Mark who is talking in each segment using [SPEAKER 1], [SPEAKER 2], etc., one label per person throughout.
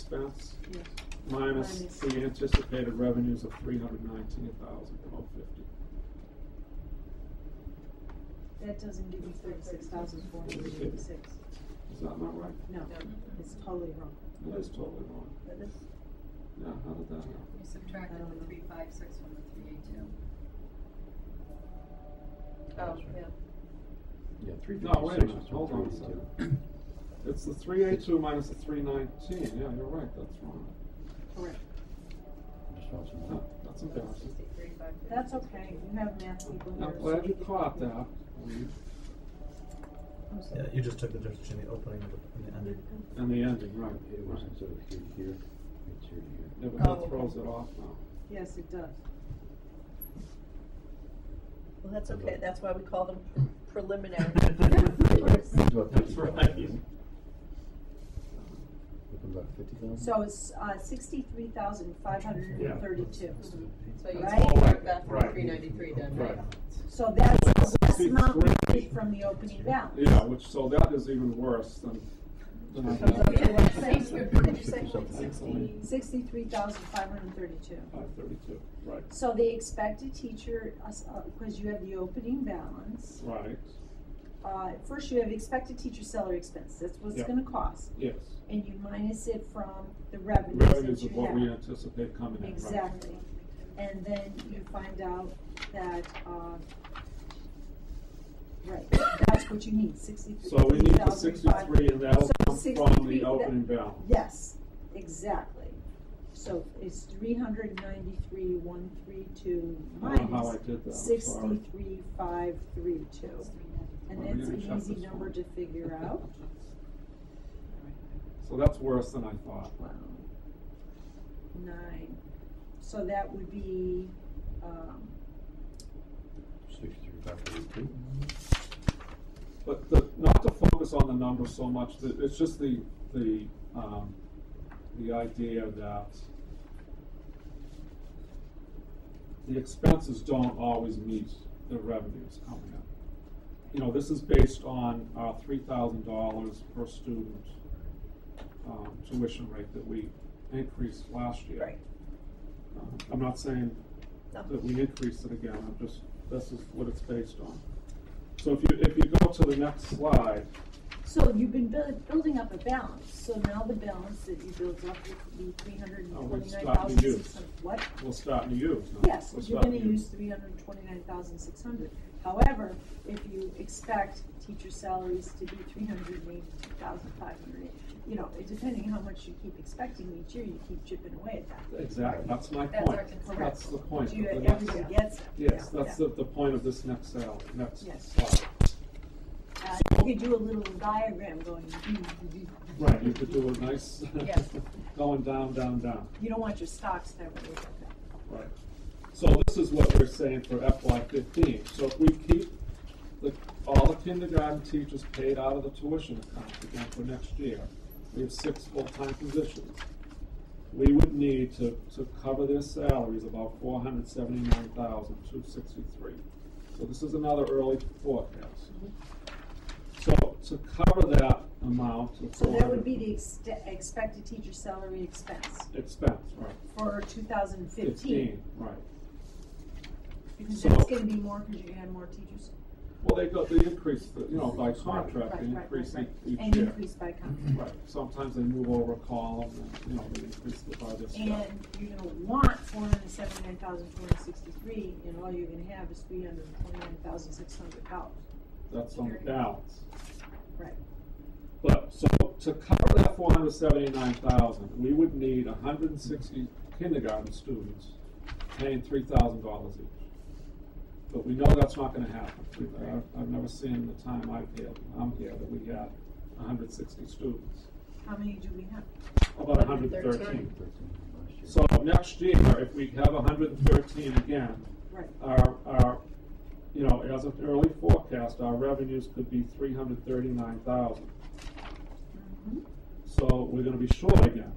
[SPEAKER 1] expense
[SPEAKER 2] Yes.
[SPEAKER 1] minus
[SPEAKER 2] Minus.
[SPEAKER 1] the anticipated revenues of three hundred nineteen thousand twelve fifty.
[SPEAKER 2] That doesn't give you thirty-six thousand four hundred and eighty-six.
[SPEAKER 1] Is that not right?
[SPEAKER 2] No, it's totally wrong.
[SPEAKER 1] That is totally wrong.
[SPEAKER 3] Oh,
[SPEAKER 1] Yeah, how did that happen?
[SPEAKER 3] You subtracted the three five six from the three eight two.
[SPEAKER 2] Oh, yeah.
[SPEAKER 4] Yeah, three
[SPEAKER 1] No, wait a minute,
[SPEAKER 4] fifty-six is
[SPEAKER 1] hold on a second. It's the three eight two minus the three nineteen, yeah, you're right, that's wrong.
[SPEAKER 2] Correct.
[SPEAKER 4] Just want some
[SPEAKER 1] No,
[SPEAKER 4] more.
[SPEAKER 1] That's embarrassing.
[SPEAKER 2] That's okay, you have math people here.
[SPEAKER 1] I'm
[SPEAKER 2] so
[SPEAKER 1] glad
[SPEAKER 2] we
[SPEAKER 1] you
[SPEAKER 2] can-
[SPEAKER 1] caught that.
[SPEAKER 2] I'm sorry.
[SPEAKER 5] Yeah, you just took the difference between the opening and the- and the ending.
[SPEAKER 1] And the ending, right,
[SPEAKER 4] It
[SPEAKER 1] right.
[SPEAKER 4] wasn't so here, here, it's here, here.
[SPEAKER 1] Yeah, but that
[SPEAKER 6] Oh.
[SPEAKER 1] throws it off now.
[SPEAKER 2] Yes, it does.
[SPEAKER 6] Well, that's okay, that's why we call them preliminary.
[SPEAKER 4] It's about
[SPEAKER 1] That's
[SPEAKER 4] 50,000,
[SPEAKER 1] right.
[SPEAKER 4] Looking about fifty thousand?
[SPEAKER 2] So it's, uh, sixty-three thousand five hundred and thirty-two.
[SPEAKER 3] So you
[SPEAKER 2] Right.
[SPEAKER 3] subtract that from
[SPEAKER 1] Right.
[SPEAKER 3] three ninety-three then, right?
[SPEAKER 2] So that's the less amount we
[SPEAKER 1] 63.
[SPEAKER 2] paid from the opening balance.
[SPEAKER 1] Yeah, which, so that is even worse than, than I
[SPEAKER 6] Comes up
[SPEAKER 1] had.
[SPEAKER 6] to what, six?
[SPEAKER 3] What did you say, like sixty?
[SPEAKER 4] Something.
[SPEAKER 2] Sixty-three thousand five hundred and thirty-two.
[SPEAKER 1] Five thirty-two, right,
[SPEAKER 2] So they expect a teacher, because uh, you have the opening balance,
[SPEAKER 1] right,
[SPEAKER 2] uh, first you have expected teacher salary expense, that's what it's
[SPEAKER 1] Yeah.
[SPEAKER 2] gonna cost.
[SPEAKER 1] yes.
[SPEAKER 2] And you minus it from the revenues
[SPEAKER 1] Revenues
[SPEAKER 2] that
[SPEAKER 1] of what we
[SPEAKER 2] you have.
[SPEAKER 1] anticipate coming in, right?
[SPEAKER 2] Exactly. And then you find out that, uh, right, that's what you need, sixty-three
[SPEAKER 1] So we need the
[SPEAKER 2] thousand five-
[SPEAKER 1] sixty-three and that'll
[SPEAKER 2] So
[SPEAKER 1] come from
[SPEAKER 2] 63,
[SPEAKER 1] the
[SPEAKER 2] that-
[SPEAKER 1] opening balance.
[SPEAKER 2] Yes, exactly. So it's three hundred ninety-three, one, three, two,
[SPEAKER 1] I don't know how I
[SPEAKER 2] minus
[SPEAKER 1] did that, I'm sorry.
[SPEAKER 2] sixty-three, five, three, two. And
[SPEAKER 1] Well,
[SPEAKER 2] that's
[SPEAKER 1] maybe
[SPEAKER 2] an
[SPEAKER 1] check
[SPEAKER 2] easy
[SPEAKER 1] this
[SPEAKER 2] number
[SPEAKER 1] one.
[SPEAKER 2] to figure out.
[SPEAKER 1] So that's worse than I thought.
[SPEAKER 2] Wow. Nine, so that would be, um,
[SPEAKER 4] Sixty-three, five thirty-two.
[SPEAKER 1] But the, not to focus on the numbers so much, the- it's just the, the, um, the idea that the expenses don't always meet the revenues coming in. You know, this is based on our three thousand dollars per student, um, tuition rate that we increased last year.
[SPEAKER 6] Right.
[SPEAKER 1] Um, I'm not saying
[SPEAKER 6] No.
[SPEAKER 1] that we increase it again, I'm just, this is what it's based on. So if you, if you go to the next slide,
[SPEAKER 2] so you've been buil- building up a balance, so now the balance that you built up would be three hundred and
[SPEAKER 1] Oh, we stopped
[SPEAKER 2] twenty-nine thousand six
[SPEAKER 1] to
[SPEAKER 2] hundred, what?
[SPEAKER 1] we'll start to use. no?
[SPEAKER 2] Yes,
[SPEAKER 1] We'll
[SPEAKER 2] you're
[SPEAKER 1] start
[SPEAKER 2] gonna
[SPEAKER 1] new.
[SPEAKER 2] use three hundred and twenty-nine thousand six hundred. However, if you expect teacher salaries to be three hundred and eighty-two thousand five hundred, you know, it- depending how much you keep expecting each year, you keep chipping away at that.
[SPEAKER 1] Exactly, that's my
[SPEAKER 3] That's
[SPEAKER 1] point.
[SPEAKER 3] our concern.
[SPEAKER 1] That's the point.
[SPEAKER 2] Do you,
[SPEAKER 1] of the next-
[SPEAKER 2] everybody gets it.
[SPEAKER 1] Yes,
[SPEAKER 2] Yeah,
[SPEAKER 1] that's
[SPEAKER 2] yeah.
[SPEAKER 1] the, the point of this next sal, next
[SPEAKER 2] Yes.
[SPEAKER 1] slide.
[SPEAKER 2] Uh, You could do a little diagram going, hmm,
[SPEAKER 1] Right, you could do a nice,
[SPEAKER 3] Yes.
[SPEAKER 1] going down, down, down.
[SPEAKER 2] you don't want your stocks to ever look like that.
[SPEAKER 1] Right. So this is what we're saying for FY fifteen. So if we keep the, all the kindergarten teachers paid out of the tuition account again for next year, we have six full-time positions. We would need to, to cover their salaries about four hundred seventy-nine thousand, two sixty-three. So this is another early forecast. So to cover that amount of
[SPEAKER 2] So
[SPEAKER 1] four
[SPEAKER 2] that would be
[SPEAKER 1] hundred
[SPEAKER 2] the ex- expected teacher salary expense
[SPEAKER 1] expense, right,
[SPEAKER 2] for two thousand
[SPEAKER 1] fifteen,
[SPEAKER 2] fifteen.
[SPEAKER 1] right.
[SPEAKER 2] Because
[SPEAKER 1] So-
[SPEAKER 2] that's gonna be more, because you're gonna have more teachers.
[SPEAKER 1] Well, they go, they increase, the you know, by contract,
[SPEAKER 2] Right,
[SPEAKER 1] they
[SPEAKER 2] right, right,
[SPEAKER 1] increase
[SPEAKER 2] right.
[SPEAKER 1] each
[SPEAKER 2] And
[SPEAKER 1] year.
[SPEAKER 2] increase by contract.
[SPEAKER 1] Right, sometimes they move over a column, and, you know, they increase the by this stuff.
[SPEAKER 2] And you're gonna want four hundred and seventy-nine thousand, four hundred and sixty-three, and all you're gonna have is three hundred and twenty-nine thousand, six hundred dollars.
[SPEAKER 1] That's on the balance.
[SPEAKER 2] Right.
[SPEAKER 1] But, so, to cover that four hundred seventy-nine thousand, we would need hundred and sixty kindergarten students paying three thousand dollars each. But we know that's not gonna happen. We've- I've, I've never seen in the time I've here, I'm here, that we had hundred and sixty students,
[SPEAKER 2] How many do we have?
[SPEAKER 1] about hundred and
[SPEAKER 3] 113.
[SPEAKER 1] thirteen.
[SPEAKER 4] Thirteen last year.
[SPEAKER 1] So next year, if we have hundred and thirteen again,
[SPEAKER 2] Right,
[SPEAKER 1] our, our, you know, as an early forecast, our revenues could be three hundred thirty-nine thousand.
[SPEAKER 2] Mhm.
[SPEAKER 1] So we're gonna be short again,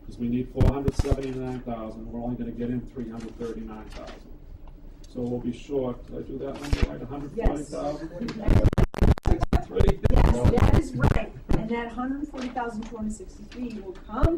[SPEAKER 1] because we need four hundred seventy-nine thousand, we're only gonna get in three hundred thirty-nine thousand. So we'll be short, did I do that number right, hundred forty thousand?
[SPEAKER 2] Yes. Yes, that is right, and that hundred and forty thousand, two hundred and sixty-three will come